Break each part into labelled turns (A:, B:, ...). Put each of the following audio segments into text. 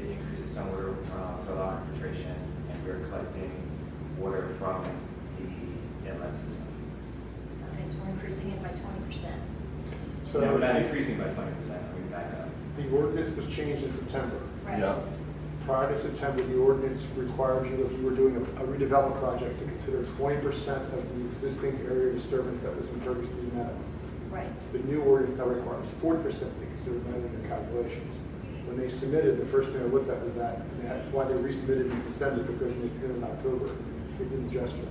A: uh, water from the inlet system.
B: Okay, so we're increasing it by twenty percent.
A: So
C: So
A: we're not
C: the
A: increasing by twenty percent, I mean, back up.
C: ordinance was changed in September.
B: Right.
D: Yeah.
C: Prior to September, the ordinance required you, if you were doing a redevelopment project, to consider twenty percent of the existing area disturbance that was in Ferguson to be met.
B: Right.
C: The new ordinance now requires forty percent to consider met in their calculations. When they submitted, the first thing I looked at was that, and that's why they resubmitted in December, because when they submitted in October, it didn't adjust it.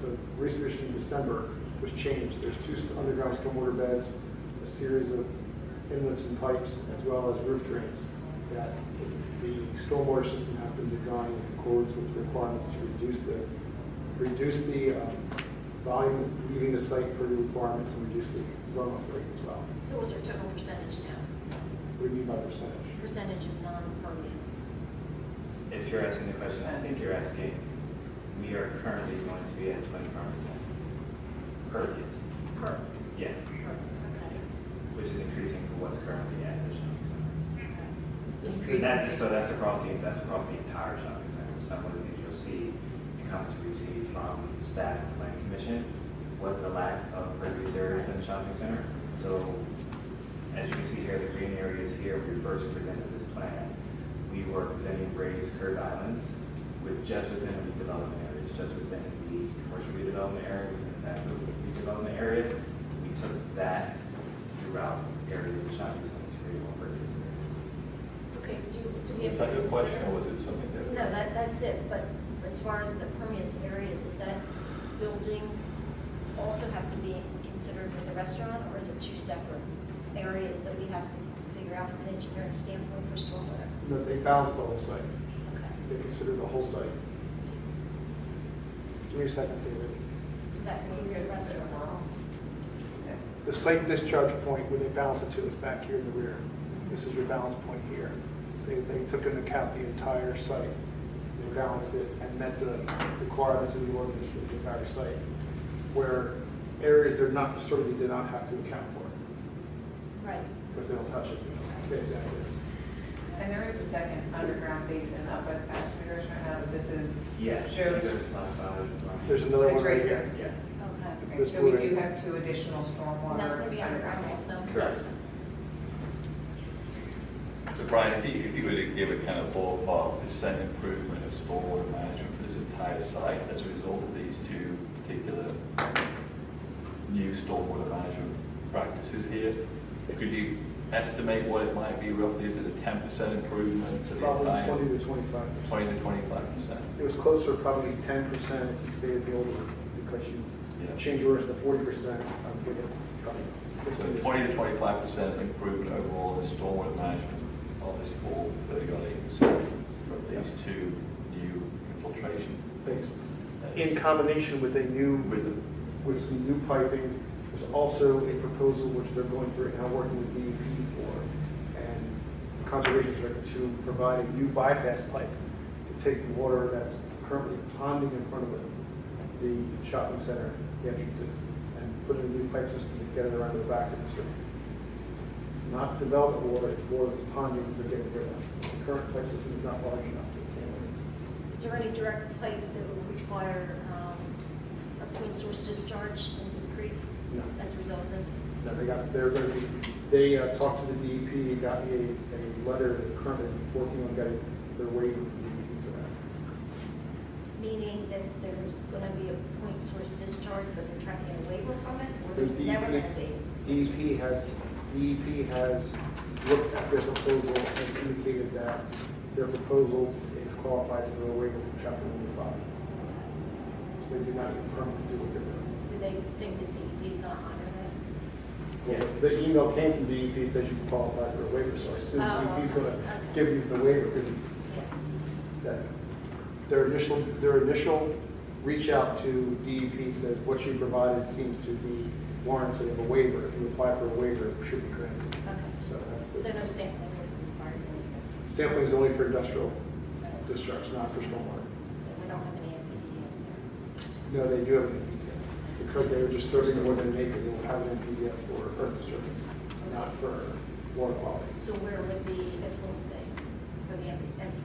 C: So resubmission in December was changed. There's two underground stormwater beds, a series of inlets and pipes, as well as roof drains, that the stormwater system has been designed in accordance with the requirements to reduce the, reduce the um, volume leaving the site per the requirements and reduce the runoff rate as well.
B: So what's our total percentage now?
C: What do you mean by percentage?
B: Percentage of non-impervious.
A: If you're asking the question, I think you're asking, we are currently going to be at twenty-five percent pervious.
B: Per.
A: Yes,
B: Impervious,
A: yes, which is increasing from what's currently at the shopping center.
B: okay.
A: And that-
B: Increasing.
A: So that's across the, that's across the entire shopping center. Some of the things you'll see and comments we receive from staff and planning commission was the lack of pervious areas in the shopping center. So as you can see here, the green areas here, when we first presented this plan, we were presenting raised curb islands with, just within the redevelopment areas, just within the commercial redevelopment area, within the fast food redevelopment area. We took that throughout areas of the shopping center to create more pervious areas.
B: Okay, do, do we have?
D: Was that
B: to
D: your question
B: consider-
D: or was it something different?
B: No, that, that's it, but as far as the pervious areas, is that building also have to be considered with the restaurant, or is it two separate areas that we have to figure out from an engineering standpoint for stormwater?
C: No, they balanced the whole site.
B: Okay,
C: They considered the whole site. Give me a second, David.
B: so that means the restaurant.
C: The site discharge point where they balance it to is back here in the rear. This is your balance point here. So they- they took into account the entire site, they balanced it and met the requirements of the ordinance for the entire site. Where areas they're not disturbed, they did not have to account for,
B: Right.
C: because they don't touch it. It Stays as is.
E: And there is a second underground basin up at fast food restaurant now that this is.
A: Yes.
E: Shows.
A: There's not about it.
C: There's another one
E: It's
C: right
E: right
C: here.
A: Yes.
B: Okay.
E: Okay,
C: This
E: So we
C: blue
E: do
C: area.
E: have two additional stormwater.
B: And that's gonna be underground
E: basin.
B: also?
A: Correct.
D: So Brian, if you, if you were to give a kind of ballpark percent improvement of stormwater management for this entire site as a result of these two particular new stormwater management practices here, could you estimate what it might be roughly? Is it a ten percent improvement to the
C: Probably
D: entire?
C: twenty to twenty-five percent.
D: Twenty to twenty-five percent?
C: It was closer, probably ten percent if you stayed at the old ordinance, because you
D: Yeah.
C: change orders to forty percent, I'm thinking probably.
D: So
C: 15%.
D: twenty to twenty-five percent improvement overall in stormwater management of this whole thirty-odd acre system from these two new infiltration
C: Thanks. In
D: basins.
C: combination with a new,
D: With the
C: with some new piping, there's also a proposal which they're going through right now, working with DEP for, and conservation director to provide a new bypass pipe to take the water that's currently ponding in front of it, the shopping center, the entrances, and put in a new pipe system to get it around the back of the street. It's not development water, it's water that's ponding, they're getting rid of. The current pipe system is not large enough to handle it.
B: Is there any direct pipe that will require um, a clean source discharge into the creek
C: No.
B: as a result of this?
C: No, they got, they're gonna be, they uh, talked to the DEP, got me a, a letter, they're currently working on getting, they're waiting for the DEP for that.
B: Meaning that there's going to be a point source discharge, but they're trying to get a waiver from it, or
C: There's
B: there's never going to
C: DEP
B: be?
C: DEP E has, DEP has looked at their proposal and indicated that their proposal is qualified for a waiver from chapter one oh five. So they do not need a permit to do what they're doing.
B: Do they think that DEP's not honoring
A: Yes.
C: The email came from E DEP, says you qualify for a waiver, so I assume
B: Oh,
C: DEP's gonna
B: okay.
C: give you the waiver, because
B: it? Yeah.
C: that their initial, their initial reach out to DEP says, what you provided seems to be warranted of a waiver. If you apply for a waiver, it should be granted. So
B: Okay.
C: that's
B: So
C: the,
B: no sampling would be required,
C: sampling is only for industrial
B: so
C: discharge, not for stormwater.
B: we don't have any NPDES there.
C: No, they do have an NPDS. Because they were disturbing more than naked, they will have an NPDS for earth disturbance, not for water quality.
B: So where would the effluent be for the NP